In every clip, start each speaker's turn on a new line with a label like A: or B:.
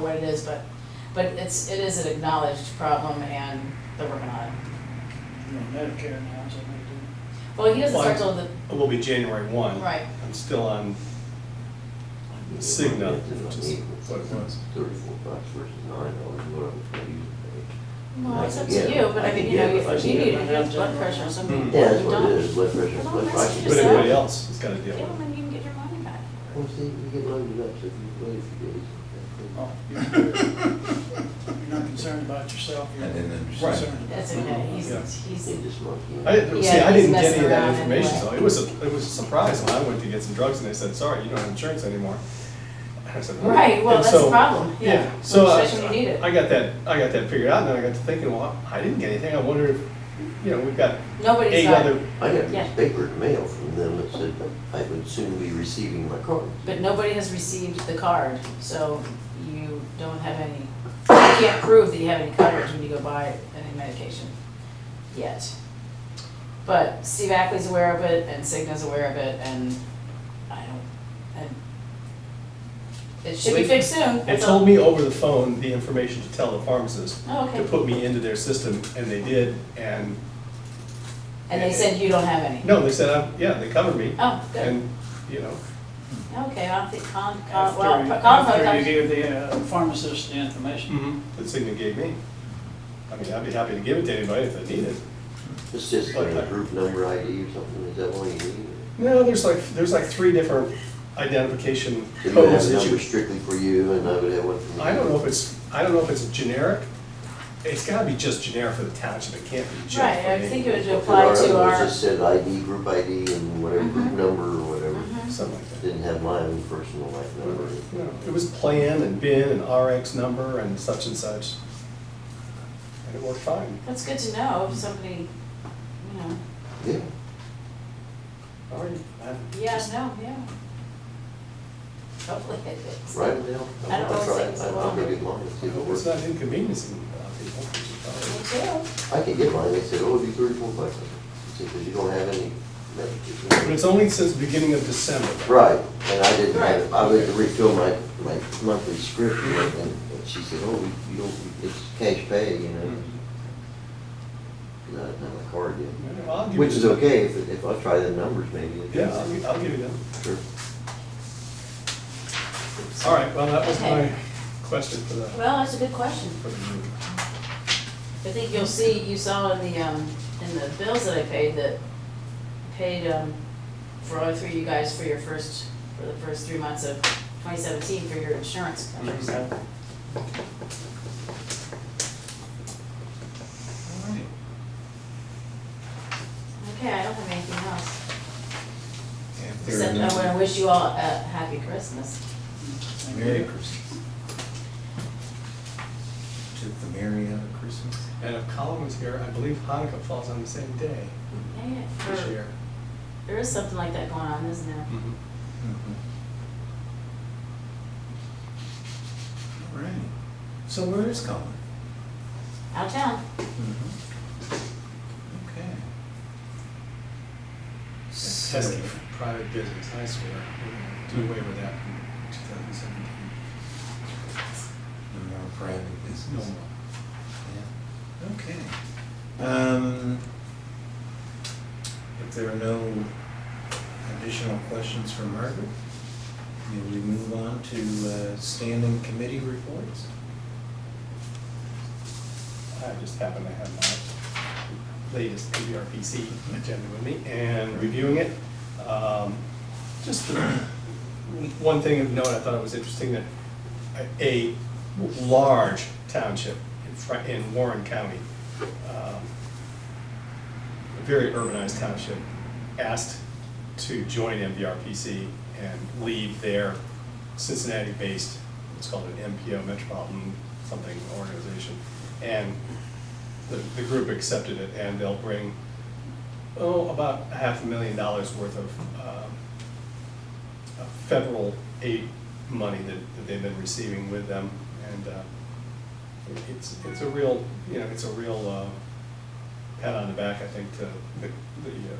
A: what it is, but, but it's, it is an acknowledged problem and they're working on it.
B: You know, Medicare now, so they
A: Well, he doesn't start
C: Why?
A: till the,
C: It will be January one.
A: right,
C: I'm still on Cigna, which is what it was.
D: Thirty-four bucks versus nine dollars, whatever, what do you pay?
A: well,
D: I
A: it's up to
D: can get it.
A: you, but I
D: I
A: mean,
D: can
A: you know,
D: get it. I
A: if you
D: can get
A: need
D: it.
A: to have blood pressure or something,
C: Mm.
D: Yeah,
A: you're
D: that's what it
A: done.
D: is, blood pressure,
A: Well,
D: blood
A: that's
D: pricing.
C: But
A: Yourself?
C: everybody else has gotta deal
A: Give
C: with
A: them and you can get your money back.
D: Well, see, you get loaded up, so if you wait a few days. that's good.
B: do. You're not concerned about yourself, you're
E: I didn't
B: concerned. about-
E: understand.
A: That's okay,
C: Yeah.
A: he's, he's,
D: They just monkey.
C: it. I didn't, see,
A: Yeah,
C: I
A: he's
C: didn't get
A: messing
C: any of that
A: around
C: information
A: anyway.
C: though. It was a, it was a surprise when I went to get some drugs and they said, sorry, you don't have insurance anymore. And I said, "Huh?"
A: right, well,
C: And
A: that's the
C: so-
A: problem, yeah.
C: Yeah, so I,
A: Especially when you need it.
C: I got that, I got that figured out and then I got to thinking, well, I didn't get anything. I wonder if, you know, we've got
A: Nobody's
C: eight
A: got,
C: other,
D: I got
A: Yeah.
D: this paper in the mail from them that said I would soon be receiving my card.
A: but nobody has received the card, so you don't have any, you can't prove that you have any coverage when you go buy any medication yet. But Steve Ackley's aware of it, and Cigna's aware of it, and I don't, and it should be
C: Wait.
A: fixed soon.
C: they
A: that's all.
C: told me over the phone the information to tell the pharmacist
A: Oh,
C: to
A: okay,
C: put me into their system and they did and,
A: and they said you don't have any?
C: no, they said, I'm- yeah, they covered me.
A: Oh, good,
C: And, you know,
A: okay, I'll think, con, con,
B: After
A: uh, well,
B: you-
A: con,
B: After you give the uh, pharmacist the information.
C: that Cigna gave me. I mean, I'd be happy to give it to anybody if they need it.
D: It's just
C: Like
D: a
C: that.
D: group number ID or something, is that all you need?
C: No, there's like, there's like three different identification
D: So you would have
C: codes
D: a
C: that
D: number
C: you,
D: strictly for you and I would have one for me.
C: I don't know if it's, I don't know if it's generic. It's gotta be just generic for the township, it can't be just for
A: Right, I
C: me.
A: think it would
D: And
A: apply
D: other
A: to
D: one
A: our,
D: just said ID, group ID and whatever, group
A: Mhm.
D: number or whatever.
A: Mm-hmm.
C: Something like that.
D: Didn't have my own personal life number.
C: No, It was plan and bin and RX number and such and such. And it worked fine.
A: that's good to know, if somebody, you know,
D: Yeah,
C: All right. I-
A: yeah, no, yeah. Hopefully it is.
D: right now.
A: I don't know
D: I'll
A: if
D: try
A: it takes
D: it. I'm
A: long.
D: gonna get mine, see if it
C: It's
D: works.
C: not inconveniencing uh, people. which is probably-
A: Me too.
D: I can get mine, they said, oh, it'd be thirty-four bucks. I said, because you don't have any
C: But
D: medication.
C: it's only since the beginning of December.
D: Right, and I didn't have, it.
A: Right.
D: I went to refill my, my monthly script and and she said, oh, we- you don't, it's cash pay, you know.
C: Mhm.
D: Not, not a card yet.
C: Yeah, I'll give
D: Which
C: you-
D: is okay, if, if I try the numbers maybe.
C: Yeah, I'll, gi- I'll give you that.
D: Sure.
C: All right, well, that was my
A: Okay.
C: question for the,
A: Well, that's a good question.
C: for the group.
A: I think you'll see, you saw in the, um, in the bills that I paid, that paid, um, for all three of you guys for your first, for the first three months of twenty seventeen for your insurance coverage, so.
C: Mm-hmm.
B: All right.
A: Okay, I don't have anything else,
E: And third
A: except I
E: number.
A: want to wish you all a happy Christmas.
B: Thank you.
E: Merry Christmas. Took the merry out of Christmas.
C: And if Colin was here, I believe Hanukkah falls on the same day
A: Yeah,
C: this
A: or-
C: year.
A: There is something like that going on, isn't there?
C: Mhm.
E: Mm-hmm. All right. So where is Colin?
A: Out of town.
E: Mm-hmm. Okay.
C: That's
E: So-
C: pesky private business, I swear. We're gonna Do away with that in 2017.
E: No more private
C: No
E: business.
C: more.
E: Yeah. Okay. Um, if there are no additional questions for Margaret, may we move on to uh, standing committee reports?
C: I just happen to have my latest PBRPC agenda with me and reviewing it. Um, Just the- one thing of note, I thought it was interesting that a- a large township in Fri- in Warren County, um, a very urbanized township, asked to join MVRPC and leave their Cincinnati-based, it's called an MPO Metropolitan something organization. And the, the group accepted it, and they'll bring, oh, about a half a million dollars worth of, um, of federal aid money that, that they've been receiving with them, and, uh, it- it's, it's a real, you know, it's a real, uh, pat on the back, I think, to the, the, uh,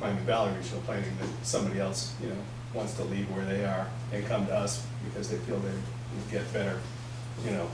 C: Miami Valley Regional Planning, that somebody else, you know, wants to leave where they are and come to us because they feel they, get better, you know,